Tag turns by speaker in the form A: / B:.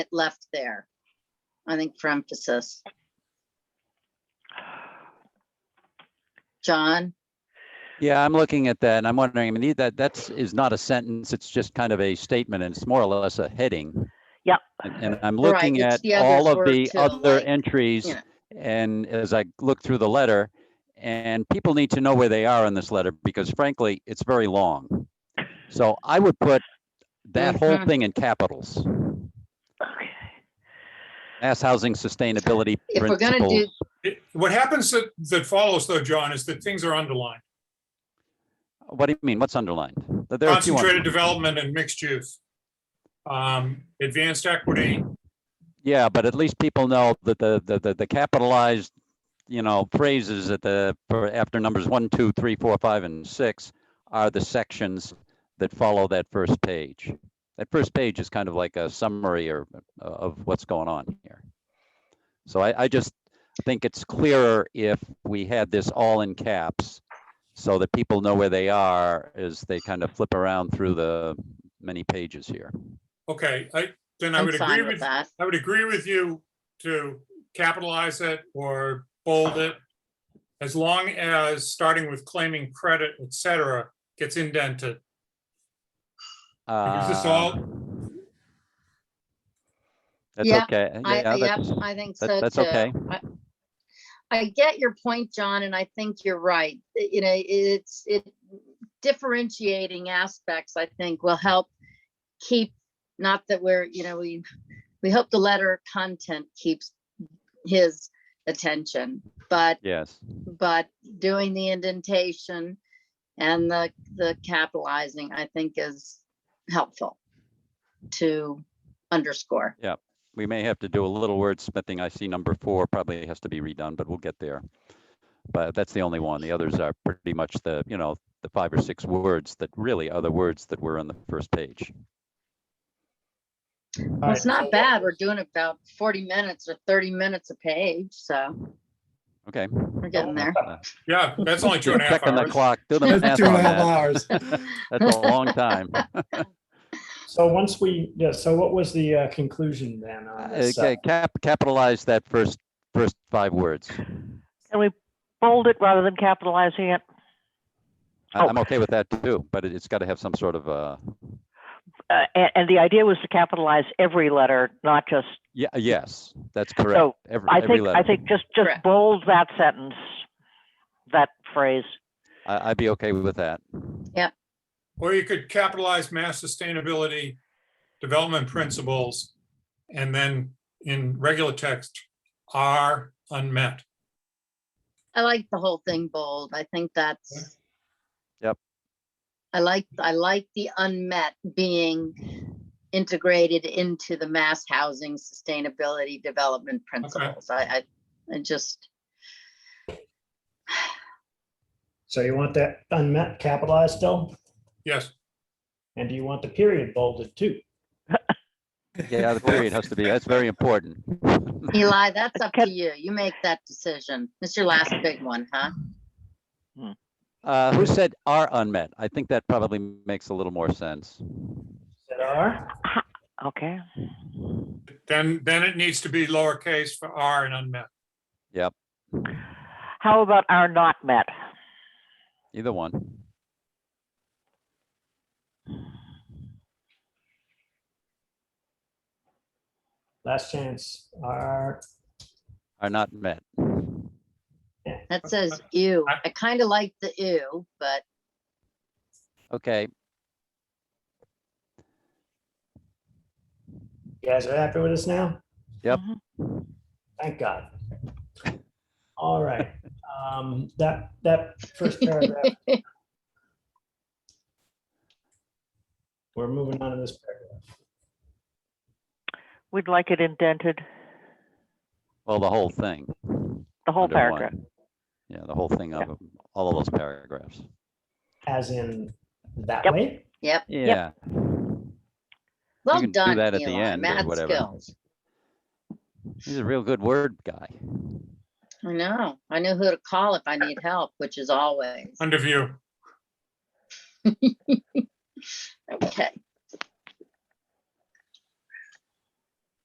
A: it left there. I think for emphasis. John,
B: Yeah, I'm looking at that and I'm wondering, I mean, the- that, that's, is not a sentence, it's just kind of a statement and it's more or less a heading.
C: Yep.
B: And, and I'm
A: Right,
B: looking
A: it's
B: at
A: the
B: all
A: others
B: of the
A: were too,
B: other
A: like,
B: entries
A: know.
B: and as I look through the letter, and people need to know where they are in this letter because frankly, it's very long. So I would put that whole
A: Mhm.
B: thing in capitals,
C: Okay.
B: Mass Housing Sustainability
A: If we're gonna do-
B: Principles.
D: It- What happens that, that follows though, John, is that things are underlined.
B: What do you mean? What's underlined? There are a few
D: Concentrated
B: underlined.
D: development and mixed use. Um, Advanced equity,
B: Yeah, but at least people know that the, the, the- the capitalized, you know, phrases at the, for- after numbers one, two, three, four, five, and six are the sections that follow that first page. That first page is kind of like a summary or, uh, of what's going on here. So I, I just think it's clearer if we had this all in caps so that people know where they are as they kind of flip around through the many pages here.
D: okay, I, then I
A: I'm
D: would agree
A: fine with
D: with,
A: that.
D: I would agree with you to capitalize it or bold it. As long as, starting with claiming credit, et cetera, gets indented. Is this all-
B: Uh, That's
A: Yeah,
B: okay.
A: I,
B: Yeah,
A: yep,
B: that's,
A: I think
B: that-
A: so
B: that's
A: too.
B: okay.
A: I- I get your point, John, and I think you're right. I- You know, it's, it differentiating aspects, I think, will help keep, not that we're, you know, we, we hope the letter content keeps his attention, but
B: yes.
A: but doing the indentation and the, the capitalizing, I think is helpful to underscore.
B: We may have to do a little wordsmithing. I see number four probably has to be redone, but we'll get there. But that's the only one. The others are pretty much the, you know, the five or six words that really are the words that were on the first page.
A: Well, it's not bad. We're doing about forty minutes or thirty minutes a page, so
B: Okay.
A: we're getting there.
D: Yeah, that's only two and a half
B: Checking the
D: hours.
B: clock, do the
A: Two
B: math
E: Two and a
B: on
E: half
B: that.
E: hours. Ah,
B: That's a long time.
F: So once we, yeah, so what was the uh, conclusion then on this? uh,
B: Okay, cap, capitalize that first, first five words.
C: And we bold it rather than capitalizing it.
B: I-
C: Oh.
B: I'm okay with that too, but it- it's got to have some sort of, uh,
C: Uh, and, and the idea was to capitalize every letter, not just,
B: Yeah, yes, that's correct.
C: So,
B: Every,
C: I
B: every
C: think, I
B: letter.
C: think just,
A: Correct.
C: just bold that sentence, that phrase.
B: I, I'd be okay with that.
D: Or you could capitalize mass sustainability, development principles, and then in regular text, are unmet.
A: I like the whole thing bold. I think that's.
B: Yep.
A: I like, I like the unmet being integrated into the mass housing sustainability development principles. I, I, I just,
F: So you want that unmet capitalized still?
D: Yes,
F: And do you want the period bolded too?
B: Yeah, the period has to be, that's very important.
A: Eli, that's up to
C: Can-
A: you. You make that decision. It's your last big one, huh?
B: Uh, who said are unmet? I think that probably makes a little more sense.
F: That are?
C: Okay.
D: then, then it needs to be lowercase for are and unmet.
C: How about are not met?
B: Either one.
F: Last chance are,
B: Are not met. Uh,
A: That says ew.
D: I-
A: I kind of like the ew, but
B: Okay,
F: you guys are happy with us now?
B: Yep.
C: Mhm.
F: Thank God. All right, um, that, that first paragraph. We're moving on to this paragraph.
C: We'd like it indented,
B: well, the whole thing.
C: the whole
B: under one.
C: paragraph.
B: Yeah, the whole thing of all of those paragraphs.
F: As in that
C: Yep.
F: way?
A: yep.
B: Yeah,
A: Well
B: can do
A: done,
B: that at the
A: Eli.
B: end or
A: Mad
B: whatever.
A: skills.
B: he's a real good word guy.
A: I know. I know who to call if I need help, which is always.
D: Under view.
A: Okay.